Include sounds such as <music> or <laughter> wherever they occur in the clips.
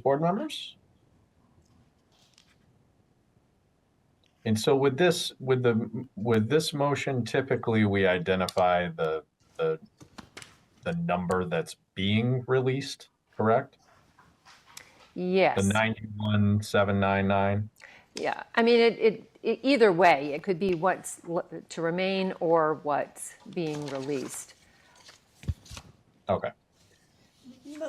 board members? And so with this, with the, with this motion, typically we identify the, the, the number that's being released, correct? The Yes. ninety-one, seven, nine, nine? Yeah. I mean, it, it, it, either way, it could be what's l- to remain or what's being released. Okay.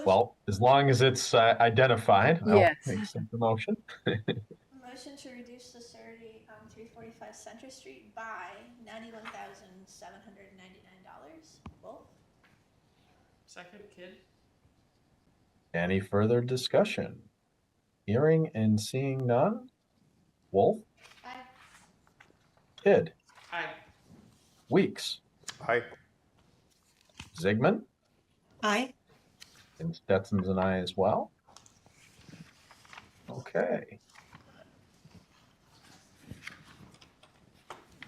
Well, as long as it's uh, identified, I'll Yes. accept the motion. Motion to reduce the Surrey on three forty-five Center Street by ninety-one thousand seven hundred ninety-nine dollars. Wolf? Second kid? Any further discussion? Hearing and seeing none? Wolf, Aye. Kid, Aye. Weeks, Aye. Zigman, Aye. and Stetson's and I as well. Okay.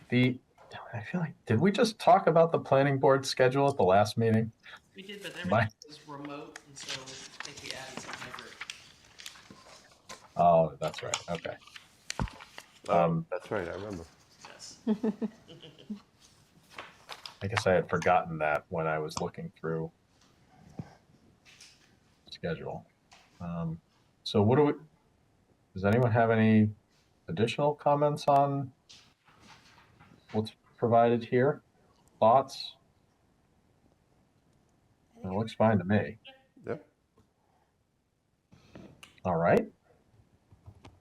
The, I feel like, did we just talk about the planning board schedule at the last meeting? We did, but My- everything was remote, and so I think we added some hybrid. Oh, that's right. Okay. Um, Um, that's right, I remember. Yes. I guess I had forgotten that when I was looking through schedule. Um, so what do we, does anyone have any additional comments on what's provided here? Thoughts? It looks fine to me. Yep. All right.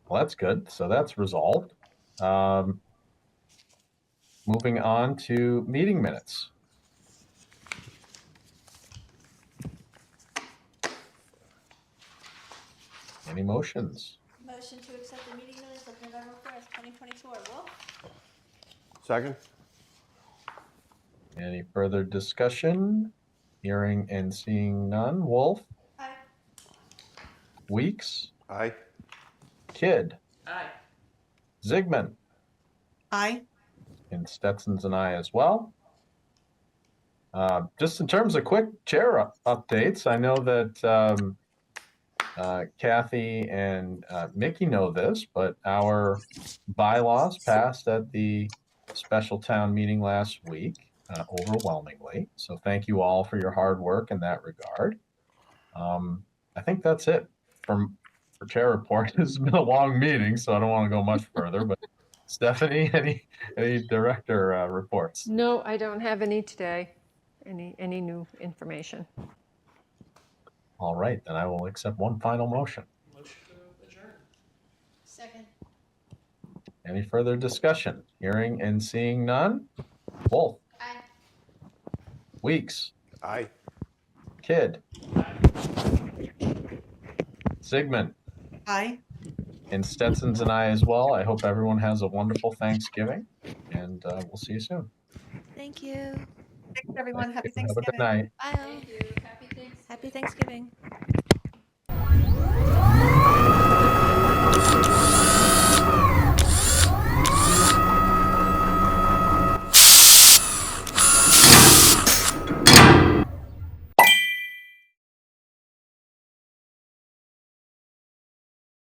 Well, that's good. So that's resolved. Um, moving on to meeting minutes. Any motions? Motion to accept the meeting minutes of November fourth, twenty twenty-four. Wolf? Second? Any further discussion? Hearing and seeing none. Wolf, Aye. Weeks, Aye. Kidd, Aye. Zigman, Aye. and Stetson's and I as well. Uh, just in terms of quick chair u- updates, I know that um, uh, Kathy and uh, Mickey know this, but our bylaws passed at the special town meeting last week uh, overwhelmingly. So thank you all for your hard work in that regard. Um, I think that's it from for chair report. <laughs> It's been a long meeting, so I don't want to go much further. But Stephanie, <laughs> any any director uh, reports? No, I don't have any today. Any, any new information. All right, then I will accept one final motion. Motion to adjourn. Second. Any further discussion? Hearing and seeing none? Wolf, Aye. Weeks, Aye. Kidd, Sigmund, Aye. and Stetson's and I as well. I hope everyone has a wonderful Thanksgiving, and uh, we'll see you soon. Thank you. Thanks, everyone. Happy Have a good Thanksgiving. night. Bye. Happy Thanksgiving. Happy Thanksgiving.